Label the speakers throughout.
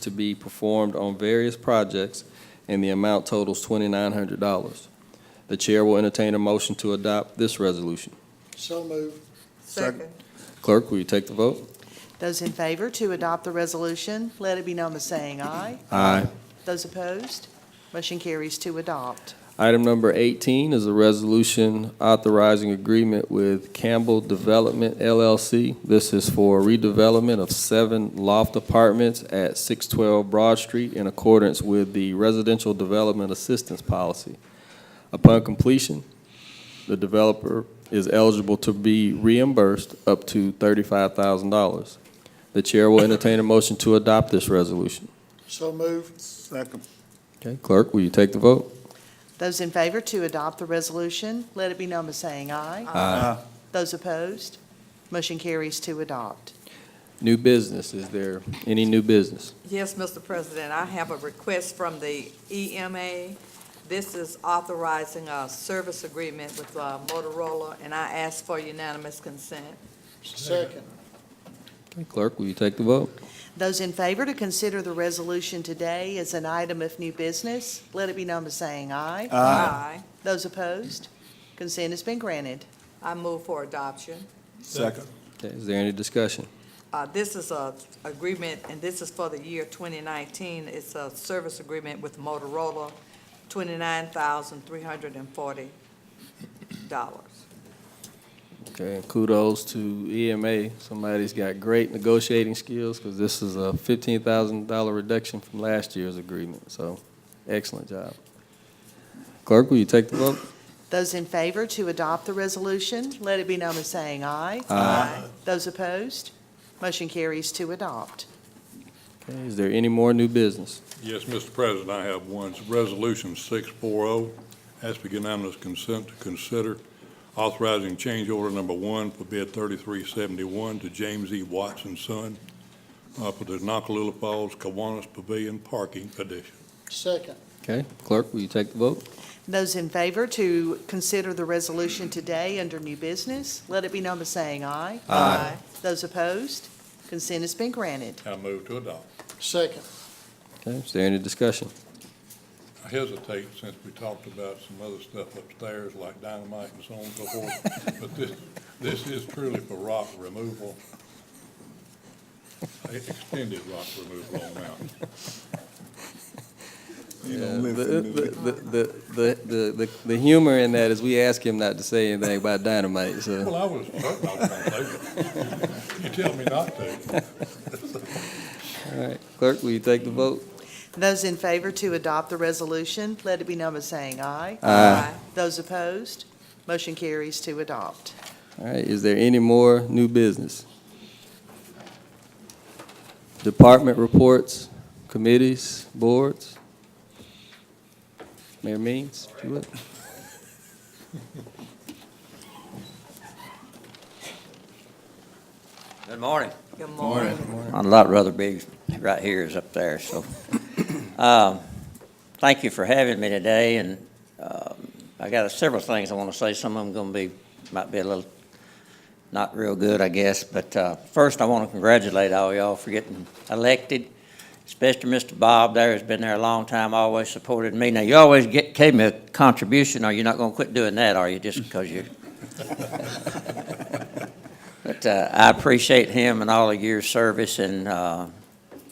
Speaker 1: to be performed on various projects, and the amount totals $2,900. The chair will entertain a motion to adopt this resolution.
Speaker 2: So moved.
Speaker 3: Second.
Speaker 1: Clerk, will you take the vote?
Speaker 3: Those in favor to adopt the resolution, let it be known by saying aye.
Speaker 1: Aye.
Speaker 3: Those opposed, motion carries to adopt.
Speaker 1: Item number 18 is a resolution authorizing agreement with Campbell Development LLC. This is for redevelopment of seven loft apartments at 612 Broad Street in accordance with the Residential Development Assistance Policy. Upon completion, the developer is eligible to be reimbursed up to $35,000. The chair will entertain a motion to adopt this resolution.
Speaker 2: So moved. Second.
Speaker 1: Okay, clerk, will you take the vote?
Speaker 3: Those in favor to adopt the resolution, let it be known by saying aye.
Speaker 2: Aye.
Speaker 3: Those opposed, motion carries to adopt.
Speaker 1: New business, is there any new business?
Speaker 4: Yes, Mr. President, I have a request from the EMA. This is authorizing a service agreement with uh, Motorola, and I ask for unanimous consent.
Speaker 2: Second.
Speaker 1: Okay, Clerk, will you take the vote?
Speaker 3: Those in favor to consider the resolution today as an item of new business, let it be known by saying aye.
Speaker 4: Aye.
Speaker 3: Those opposed, consent has been granted.
Speaker 4: I move for adoption.
Speaker 2: Second.
Speaker 1: Okay, is there any discussion?
Speaker 4: Uh, This is a agreement, and this is for the year 2019. It's a service agreement with Motorola, $29,340.
Speaker 1: Okay, and kudos to EMA. Somebody's got great negotiating skills because this is a fifteen thousand dollar reduction from last year's agreement, so excellent job. Clerk, will you take the vote?
Speaker 3: Those in favor to adopt the resolution, let it be known by saying aye.
Speaker 4: Aye.
Speaker 3: Those opposed, motion carries to adopt.
Speaker 1: Okay, is there any more new business?
Speaker 5: Yes, Mr. President, I have one. It's Resolution 640, ask for unanimous consent to consider authorizing change order number one for bid 3371 to James E. Watson Son uh, for the Nakalula Falls Kiwanis Pavilion Parking addition.
Speaker 2: Second.
Speaker 1: Okay, clerk, will you take the vote?
Speaker 3: Those in favor to consider the resolution today under new business, let it be known by saying aye.
Speaker 4: Aye.
Speaker 3: Those opposed, consent has been granted.
Speaker 5: I move to adopt.
Speaker 2: Second.
Speaker 1: Okay, is there any discussion?
Speaker 5: I hesitate since we talked about some other stuff upstairs like dynamite and so on and so forth, but this, this is truly for rock removal. e-, Extended rock removal on mountain.
Speaker 1: The, uh, the, the, the, the, the humor in that is we ask him not to say anything about dynamite, so.
Speaker 5: Well, I was certain I was gonna take it. You tell me not to.
Speaker 1: All right, clerk, will you take the vote?
Speaker 3: Those in favor to adopt the resolution, let it be known by saying aye.
Speaker 4: Aye.
Speaker 3: Those opposed, motion carries to adopt.
Speaker 1: All right, is there any more new business? Department reports, committees, boards? Mayor Means, if you would.
Speaker 6: Good morning.
Speaker 4: Good morning.
Speaker 6: I'd a lot rather be right here as up there, so. Um, Thank you for having me today, and um, I got several things I want to say. Some of them going to be, might be a little, not real good, I guess. But uh, first, I want to congratulate all y'all for getting elected, especially Mr. Bob there, who's been there a long time, always supported me. Now, you always get, gave me a contribution, or you're not going to quit doing that, are you, just because you But uh, I appreciate him and all of your service, and uh,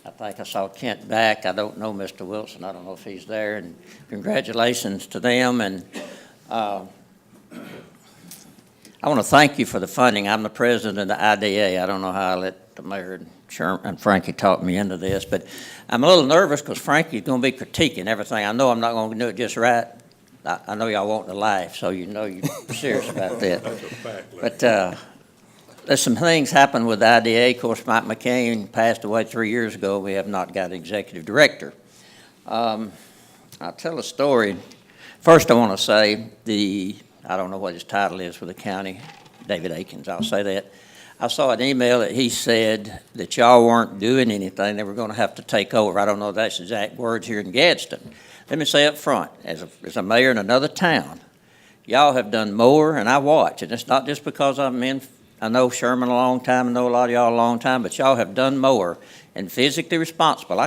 Speaker 6: I think I saw Kent back. I don't know Mr. Wilson, I don't know if he's there, and congratulations to them, and uh, I want to thank you for the funding. I'm the president of the IDA. I don't know how I let the mayor and Sher- and Frankie talk me into this, but I'm a little nervous because Frankie's going to be critiquing everything. I know I'm not going to do it just right. I I know y'all want to laugh, so you know you're serious about that.
Speaker 5: That's a fact, Larry.
Speaker 6: But uh, there's some things happened with IDA. Of course, Mike McCain passed away three years ago. We have not got an executive director. Um, I'll tell a story. First, I want to say the, I don't know what his title is for the county, David Akins, I'll say that. I saw an email that he said that y'all weren't doing anything, they were going to have to take over. I don't know if that's exact words here in Gadsden. Let me say up front, as a, as a mayor in another town, y'all have done more, and I watch, and it's not just because I'm in, I know Sherman a long time, I know a lot of y'all a long time, but y'all have done more and physically responsible. I